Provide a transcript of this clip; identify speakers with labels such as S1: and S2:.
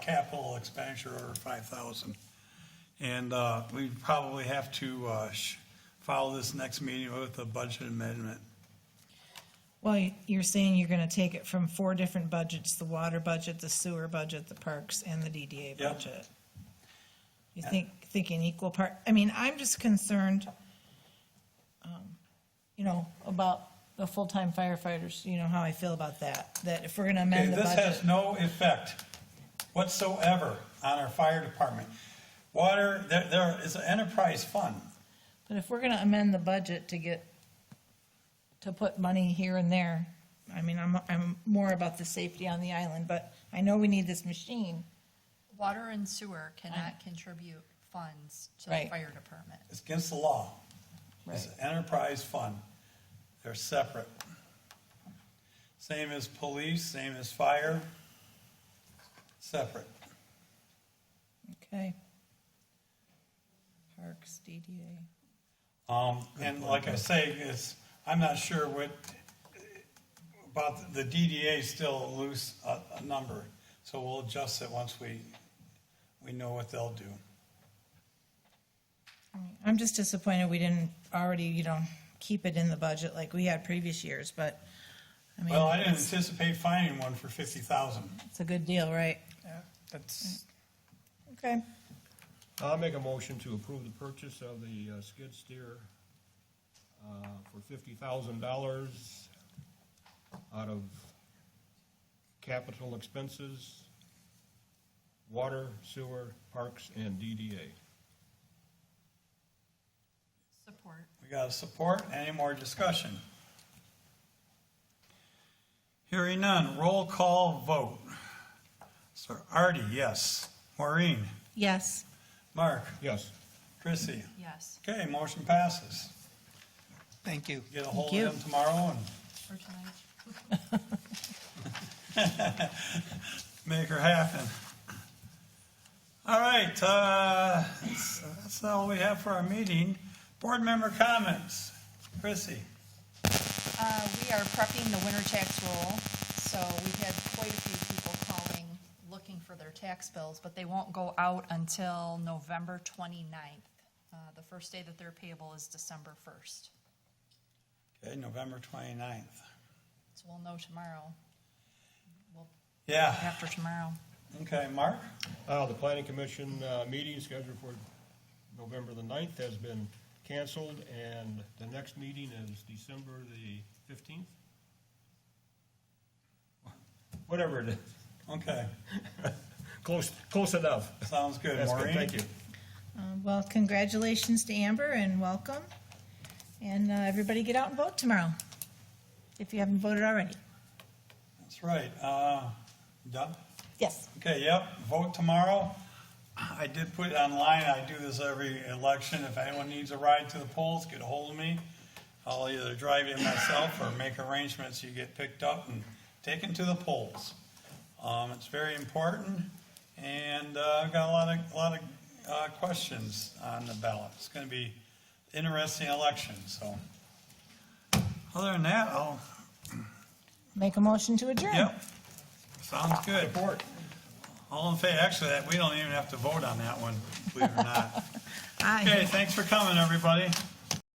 S1: capital expenditure over five thousand. And, uh, we probably have to, uh, sh- follow this next meeting with a budget amendment.
S2: Well, y- you're saying you're gonna take it from four different budgets, the water budget, the sewer budget, the parks, and the DDA
S1: Yep.
S2: budget. You think, thinking equal part, I mean, I'm just concerned, um, you know, about the full-time firefighters, you know how I feel about that, that if we're gonna
S1: Okay,
S2: amend the
S1: this has
S2: budget.
S1: no effect whatsoever on our fire department. Water, there, there is an enterprise fund.
S2: But if we're gonna amend the budget to get, to put money here and there, I mean, I'm, I'm more about the safety on the island, but I know we need this machine.
S3: Water and sewer cannot contribute funds to the
S2: Right.
S3: fire department.
S1: It's against the law. It's an enterprise fund. They're separate. Same as police, same as fire. Separate.
S2: Okay. Parks, DDA.
S1: Um, and like I say, it's, I'm not sure what, about the DDA is still a loose, a, a number. So we'll adjust it once we, we know what they'll do.
S2: I'm just disappointed we didn't already, you know, keep it in the budget like we had previous years, but, I
S1: Well, I
S2: mean,
S1: didn't anticipate finding one for fifty thousand.
S2: it's a good deal, right?
S4: Yeah, That's,
S2: Okay.
S4: I'll make a motion to approve the purchase of the uh, skid steer uh, for fifty thousand dollars out of capital expenses, water, sewer, parks, and DDA.
S3: Support.
S1: We got a support. Any more discussion? Hearing none. Roll call vote. Sir Artie, yes. Maureen,
S2: Yes.
S1: Mark,
S4: Yes,
S1: Chrissy.
S3: Yes.
S1: Okay, motion passes.
S5: Thank you.
S1: Get a hold
S2: you.
S1: of them tomorrow and
S3: Or tonight?
S1: make her happen. All right, uh, that's, that's all we have for our meeting. Board member comments. Chrissy.
S3: Uh, we are prepping the winter tax roll, so we've had quite a few people calling, looking for their tax bills, but they won't go out until November 29th. Uh, the first day that they're payable is December first,
S1: Okay, November 29th.
S3: so we'll know tomorrow, well,
S1: Yeah,
S3: after tomorrow.
S1: okay, Mark?
S4: Uh, the planning commission, uh, meeting scheduled for November the ninth has been canceled, and the next meeting is December the fifteenth? Whatever it is,
S1: Okay,
S4: close, close enough.
S1: sounds good.
S4: That's
S1: Maureen?
S4: good, thank you.
S2: Um, well, congratulations to Amber and welcome. And, uh, everybody get out and vote tomorrow, if you haven't voted already.
S1: That's right. Uh, Done?
S2: Yes.
S1: Okay, yep, vote tomorrow. I did put it online, I do this every election. If anyone needs a ride to the polls, get a hold of me. I'll either drive you myself or make arrangements, you get picked up and taken to the polls. Um, It's very important, and uh, I've got a lot of, a lot of uh, questions on the ballot. It's going to be interesting election, so. Other than that, I'll
S2: Make a motion to adjourn.
S1: Yep. Sounds good. All in favor, actually, that, we don't even have to vote on that one, believe it or not.
S2: Aye.
S1: Okay, thanks for coming, everybody.